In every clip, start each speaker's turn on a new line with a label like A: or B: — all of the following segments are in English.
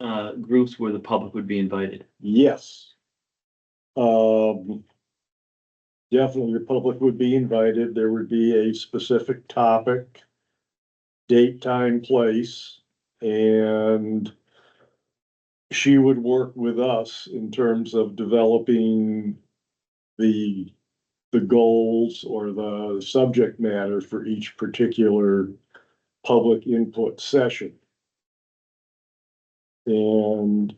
A: uh, groups where the public would be invited?
B: Yes. Um. Definitely, the public would be invited. There would be a specific topic. Date, time, place, and. She would work with us in terms of developing. The, the goals or the subject matter for each particular public input session. And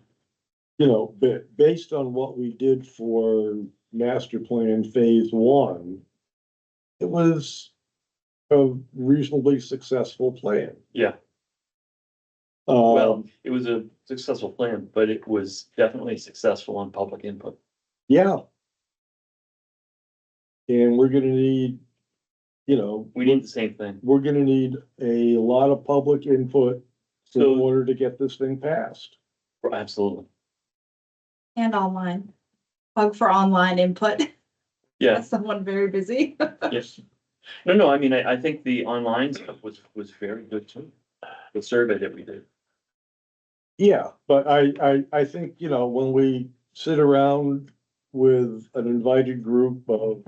B: you know, ba- based on what we did for master plan phase one, it was a reasonably successful plan.
A: Yeah. Well,
B: Um,
A: it was a successful plan, but it was definitely successful on public input.
B: yeah. And we're gonna need, you know,
A: We need the same thing.
B: we're gonna need a lot of public input in
A: So-
B: order to get this thing passed.
A: Absolutely.
C: And online. Plug for online input.
A: Yeah,
C: That's someone very busy.
A: yes. No, no, I mean, I, I think the online stuff was, was very good too. The survey that we did.
B: Yeah, but I, I, I think, you know, when we sit around with an invited group of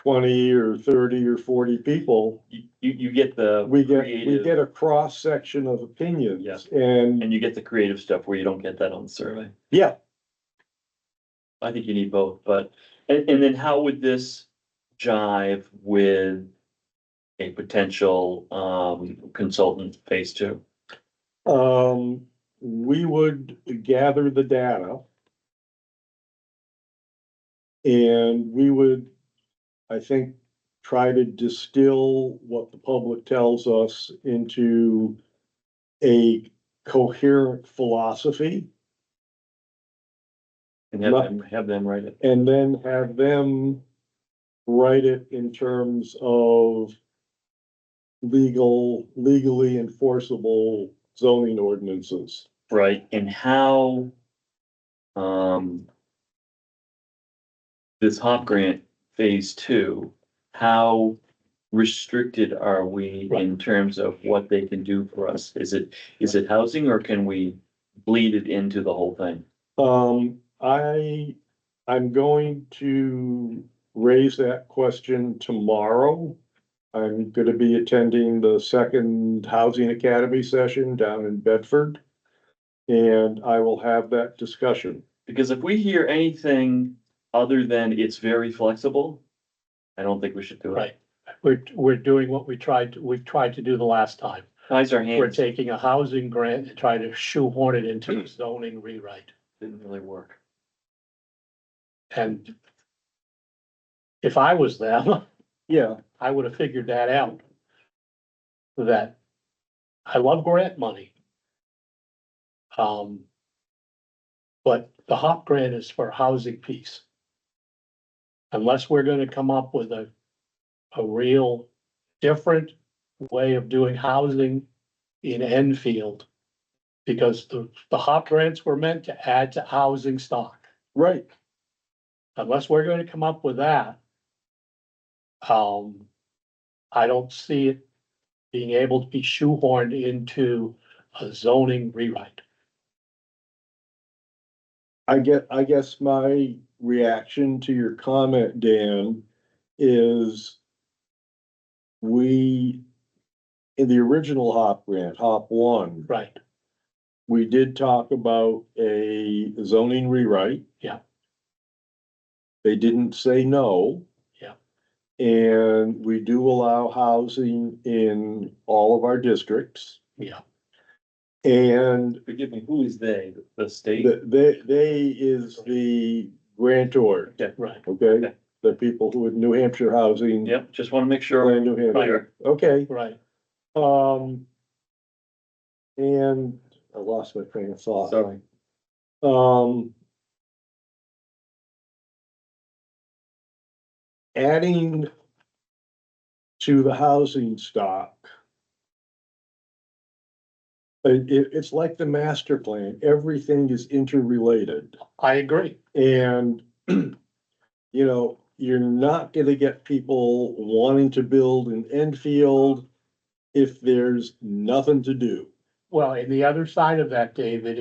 B: twenty or thirty or forty people,
A: You, you, you get the.
B: we get, we
A: creative-
B: get a cross-section of opinions.
A: Yeah.
B: And,
A: And you get the creative stuff where you don't get that on the survey.
B: yeah,
A: I think you need both, but, and, and then how would this jive with a potential, um, consultant phase two?
B: um, we would gather the data. And we would, I think, try to distill what the public tells us into a coherent philosophy
A: And have them, have them write it.
B: and then have them write it in terms of legal, legally enforceable zoning ordinances.
A: Right, and how, um, this HOP grant phase two, how restricted are we in terms of what they can do for us? Is it, is it housing or can we bleed it into the whole thing?
B: Um, I, I'm going to raise that question tomorrow. I'm gonna be attending the second Housing Academy session down in Bedford. And I will have that discussion.
A: Because if we hear anything other than it's very flexible, I don't think we should do it.
D: Right. We're, we're doing what we tried, to- we've tried to do the last time.
A: Ties our
D: We're
A: hands,
D: taking a housing grant and trying to shoehorn it into zoning rewrite
A: didn't really work.
D: and if I was them,
B: Yeah,
D: I would have figured that out. That I love grant money. Um, but the HOP grant is for housing piece. Unless we're gonna come up with a, a real different way of doing housing in Enfield. Because the, the HOP grants were meant to add to housing stock
B: right.
D: unless we're going to come up with that. Um, I don't see it being able to be shoehorned into a zoning rewrite.
B: I get, I guess my reaction to your comment, Dan, is we, in the original HOP grant, HOP one,
D: Right,
B: we did talk about a zoning rewrite.
D: Yeah.
B: They didn't say no.
D: Yeah.
B: And we do allow housing in all of our districts.
D: Yeah.
B: And
A: Forgive me, who is they? The state?
B: the, they, they is the grantor,
D: right.
B: okay?
A: Okay.
B: The people who in New Hampshire Housing.
A: Yep, just want to make sure.
B: Plan New Hampshire,
A: Clear.
B: okay.
D: Right,
B: Um. And I lost my train of thought.
A: Sorry.
B: Um. Adding to the housing stock. It, it- it's like the master plan, everything is interrelated
D: I agree.
B: and, you know, you're not gonna get people wanting to build in Enfield if there's nothing to do.
D: Well, and the other side of that, David,